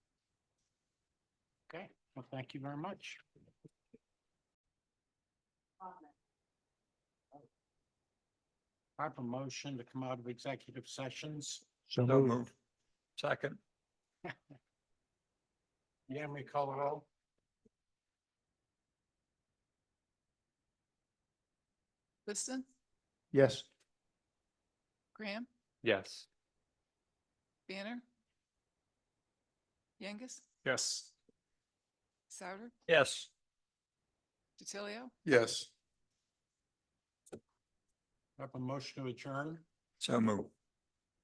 Okay, well, thank you very much. I have a motion to come out of executive sessions. So move. Second. Yeah, we call it all. Liston, Yes. Graham, Yes. Banner. Youngus, Yes. Souter, Yes. DiTilio, Yes. I have a motion to adjourn. So move.